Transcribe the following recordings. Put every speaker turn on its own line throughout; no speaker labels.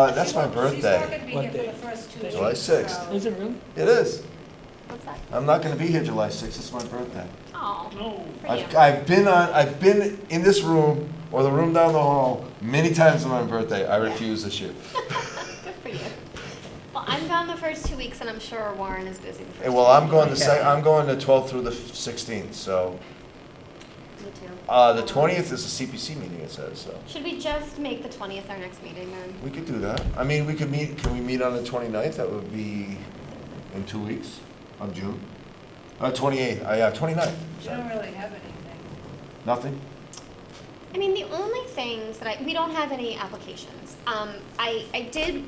Uh, that's my
She's not
birthday.
gonna be here for the first two weeks.
July sixth.
so-
Is it really?
It is.
What's that?
I'm not gonna be here July sixth, it's my birthday.
Oh,
No.
for you.
I've, I've been on, I've been in this room or the room down the hall many times on my birthday. I refuse this year.
Good for you. Well, I'm gone the first two weeks, and I'm sure Warren is busy the first.
Hey, Eh, Well,
two
I'm going the
weeks.
sec, I'm going the twelfth through the sixteenth, so,
Me too.
uh, the twentieth is a CPC meeting, it says, so.
Should we just make the twentieth our next meeting then?
We could do that. I mean, we could meet, can we meet on the 29th? That would be in two weeks of June. Uh, 28th, uh, yeah, 29th,
You don't
sorry.
really have anything.
Nothing?
I mean, the only things that I, we don't have any applications. Um, I, I did,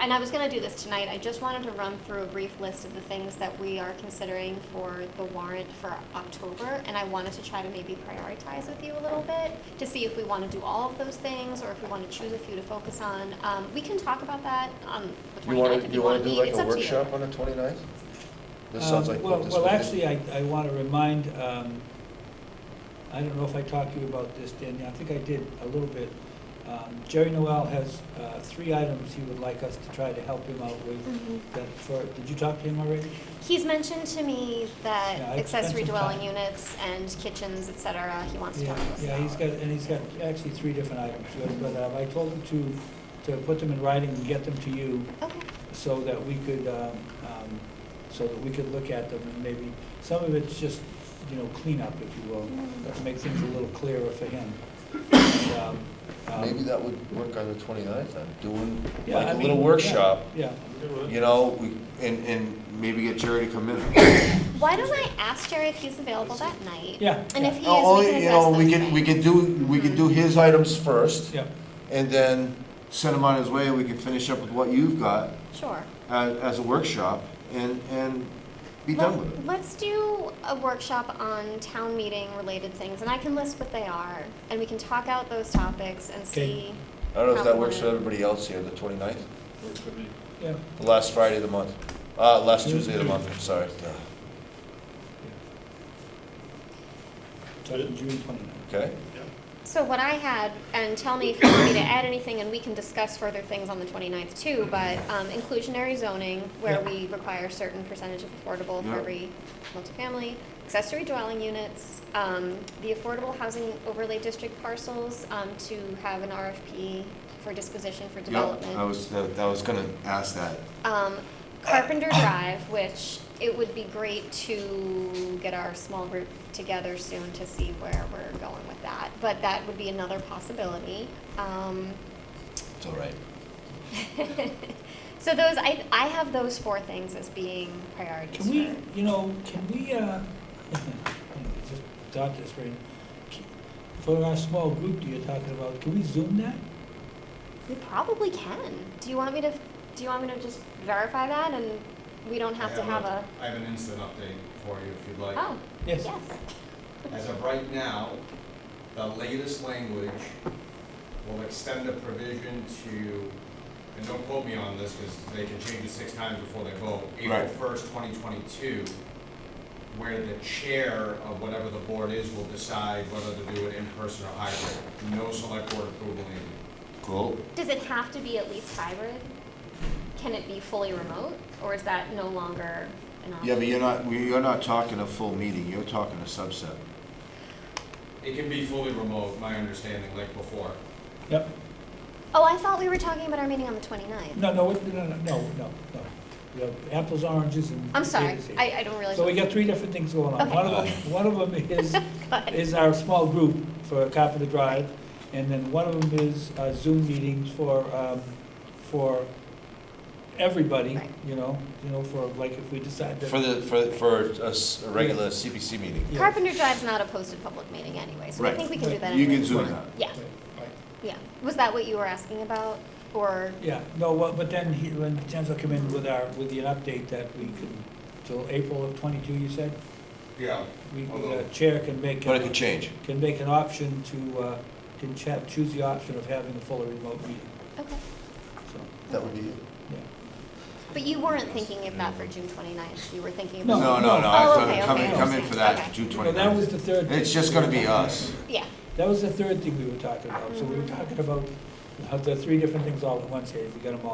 and I was gonna do this tonight, I just wanted to run through a brief list of the things that we are considering for the warrant for October, and I wanted to try to maybe prioritize with you a little bit, to see if we wanna do all of those things, or if we wanna choose a few to focus on. Um, we can talk about that on the
You
twenty-ninth
want
if
to, you
you
want
wanna
to do
be,
like
it's
a
up to you.
workshop on the 29th? This sounds
Um,
like
well-
what this would
Well,
be.
actually, I, I want to remind, um, I don't know if I talked to you about this, Danielle, I think I did a little bit. Um, Jerry Noel has uh, three items he would like us to try to help him out with.
Mhm.
That for, did you talk to him already?
He's mentioned to me that
Yeah, I
accessory
spent some
dwelling
time.
units and kitchens, et cetera, he wants to
Yeah,
talk to us
Yeah, he's
about.
got, and he's got actually three different items, but uh, I told him to, to put them in writing and get them to you.
Okay.
so that we could, um, um, so that we could look at them and maybe, some of it's just, you know, cleanup, if you will, to make things a little clearer for him. And, um, um,
Maybe that would work on the 29th, I'm doing
yeah, I
like a
mean,
little
yeah,
workshop,
Yeah,
you know, we- and, and maybe get Jerry to come in.
Why don't I ask Jerry if he's available that night?
Yeah,
And if he is,
No,
we
only,
can
Oh, you know,
address
we
those
could, we
things.
could do, we could do his items first
yeah,
and then send him on his way and we can finish up with what you've got.
Sure.
as, as a workshop and, and be done
Well,
with it.
Let's do a workshop on town meeting related things, and I can list what they are, and we can talk out those topics and
Okay.
see.
I don't know if that works for everybody else here, the 29th,
Works for me.
yeah.
the last Friday of the month, uh, last Tuesday of the month, I'm sorry.
So June twenty-ninth.
Okay,
So what I had, and tell me if you want me to add anything, and we can discuss further things on the 29th too, but um, inclusionary zoning, where
Yeah.
we require a certain percentage of affordable
Yeah.
for every multifamily, accessory dwelling units, um, the affordable housing overlay district parcels um, to have an RFP for disposition for
yeah,
development.
I was, that that was gonna ask that.
Um, Carpenter Drive, which it would be great to get our small group together soon to see where we're going with that. But that would be another possibility. Um,
It's all right.
so those, I, I have those four things as being priorities
Can we,
for-
you know, can we, uh, I just thought this, right? For our small group that you're talking about, can we zoom that?
We probably can. Do you want me to, do you want me to just verify that and we don't have
I
to have a,
I have an instant update for you if you'd like.
oh,
Yes.
yes.
As of right now, the latest language will extend a provision to, and don't quote me on this because they can change it six times before they vote. April
Right.
first, twenty twenty-two, where the chair of whatever the board is will decide whether to do it in person or hybrid. No select board approval needed.
Cool.
Does it have to be at least hybrid? Can it be fully remote, or is that no longer an option?
Yeah, but you're not, we- you're not talking a full meeting, you're talking a subset.
It can be fully remote, my understanding, like before.
Yep.
Oh, I thought we were talking about our meeting on the 29th.
No, no, it- no, no, no, no, no. We have apples, oranges, and.
I'm sorry,
potatoes here.
I, I don't realize.
So we
what-
got three different things going on.
Okay.
One of them, one of them is,
God.
is our small group for Carpenter Drive, and then one of them is uh, Zoom meetings for, um, for everybody,
Right.
you know, you know, for, like, if we decide that.
For the, for, for a s- a regular CPC meeting.
Yeah.
Carpenter Drive's not a posted public meeting anyway, so I
Right.
think we can do
Right.
that
You
anyway.
can zoom out.
Yeah,
Right, right.
yeah. Was that what you were asking about, or,
Yeah, no, well, but then he, when Jens will come in with our, with an update that we can, till April of twenty-two, you said?
Yeah.
We, the
Although-
chair can make.
But it
a-
could change.
can make an option to, uh, can cha- choose the option of having a fully remote meeting,
okay.
so,
That would be it.
yeah.
But you weren't thinking of that for June 29th, you were thinking
No.
about.
No, no, no, I
Oh,
thought,
okay,
come in,
okay,
come in
okay.
for that
Okay.
June
No, that was
twenty-ninth.
the third.
It's
thing
just
we
gonna
were
be uh,
talking
us.
about.
Yeah,
That was the third thing we were talking about, so we were talking about the three different things all at once here, if you got them all